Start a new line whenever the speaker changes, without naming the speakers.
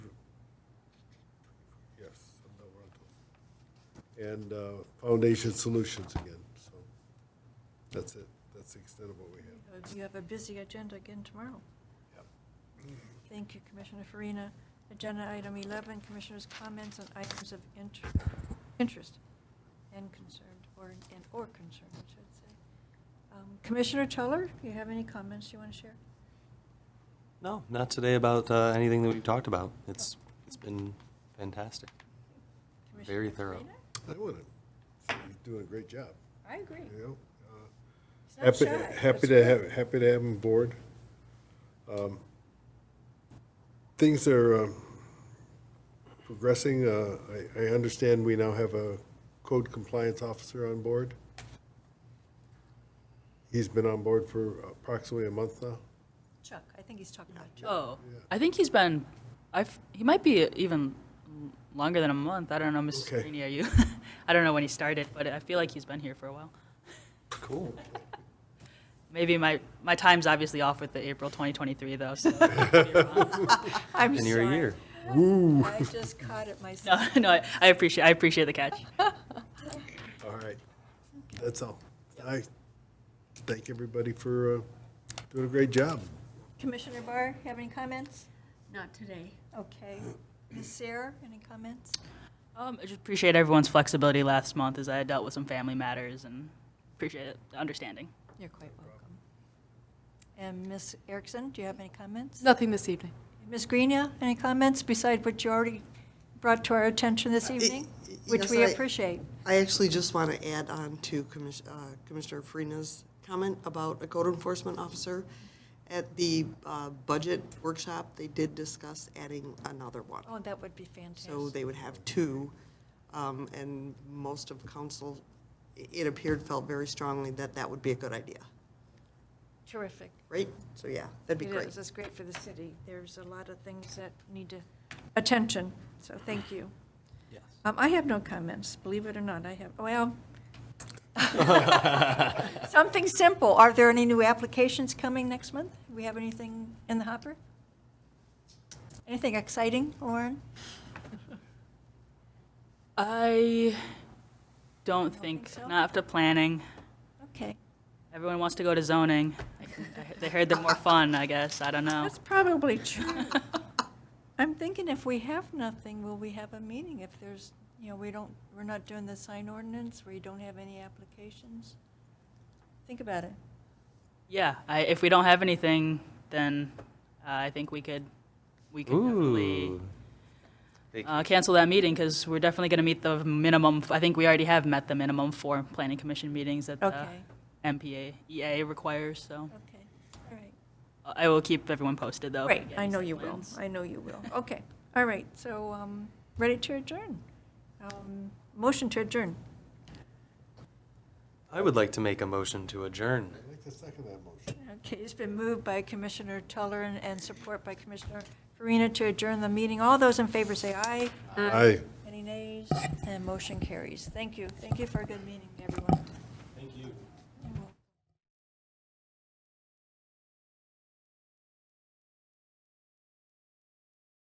and uh, Foundation Solutions again. So that's it. That's the extent of what we have.
Uh, You have a busy agenda again tomorrow.
Yep.
Thank you, Commissioner Farina. Agenda item 11, Commissioners' comments on items of inter- interest and concerned, or, and or concern, I should say. Um, Commissioner Tuller, do you have any comments you want to share?
No, not today about uh, anything that we've talked about. It's it's been fantastic. Very
Commissioner
thorough.
Farina?
I want to, so you're doing a great job,
I agree.
you know? Uh,
He's not
Happy,
shy.
happy to
That's
have,
good.
happy to have him aboard. Um, Things are um, progressing. Uh, I, I understand we now have a code compliance officer on board. He's been on board for approximately a month now.
Chuck, I think he's talking about Chuck.
Oh, I think he's been. I've he might be even longer than a month. I don't know, Mrs.
Okay.
Greeny, are you? I don't know when he started, but I feel like he's been here for a while.
Cool.
Maybe my my time's obviously off with the April 2023 though. So
I'm
And you're a
sorry.
year.
I just caught it myself.
no, no, I, I appreciate I appreciate the catch.
All right. That's all. I thank everybody for uh, doing a great job.
Commissioner Barr, have any comments?
Not today.
Okay. Ms. Sarah, any comments?
Um, I just appreciate everyone's flexibility last month as I dealt with some family matters and appreciate it, the understanding.
You're quite welcome. And Ms. Erickson, do you have any comments?
Nothing this evening.
Ms. Greenia, any comments beside what you already brought to our attention this evening?
Uh, y-
Which
yes,
we
I-
appreciate.
I actually just want to add on to Commis- uh, Commissioner Farina's comment about a code enforcement officer. At the uh, budget workshop, they did discuss adding another one.
Oh, that would be
So
fantastic.
they would have two, um, and most of council, i- it appeared, felt very strongly that that would be a good idea,
Terrific.
right? So, yeah, that'd be
It
great.
is, it's great for the city. There's a lot of things that need to, attention, so thank you.
Yes.
Um, I have no comments, believe it or not, I have, well, something simple. Are there any new applications coming next month? Do we have anything in the hopper? Anything exciting, Lauren?
I don't
think
think,
so?
not after planning.
Okay,
Everyone wants to go to zoning. I- I- They heard they're more fun, I guess. I don't know.
that's probably true. I'm thinking if we have nothing, will we have a meeting? If there's, you know, we don't, we're not doing the sign ordinance, we don't have any applications? Think about it.
Yeah, I, if we don't have anything, then uh, I think we could, we could definitely
Ooh. They-
uh, cancel that meeting because we're definitely going to meet the minimum. I think we already have met the minimum for planning commission meetings that the
Okay.
MPA EA E requires. So uh,
Okay, all right.
I will keep everyone posted though. if we
Great,
get
I
any
know
site
you will,
plans.
I know you will. Okay, all right, so, um, ready to adjourn. Um, Motion to adjourn.
I would like to make a motion to adjourn.
I'd like to second that motion.
Okay, it's been moved by Commissioner Tuller and, and support by Commissioner Farina to adjourn the meeting. All those in favor say aye.
Uh,
Aye.
Any nays? And motion carries. Thank you. Thank you for a good meeting, everyone.
Thank you.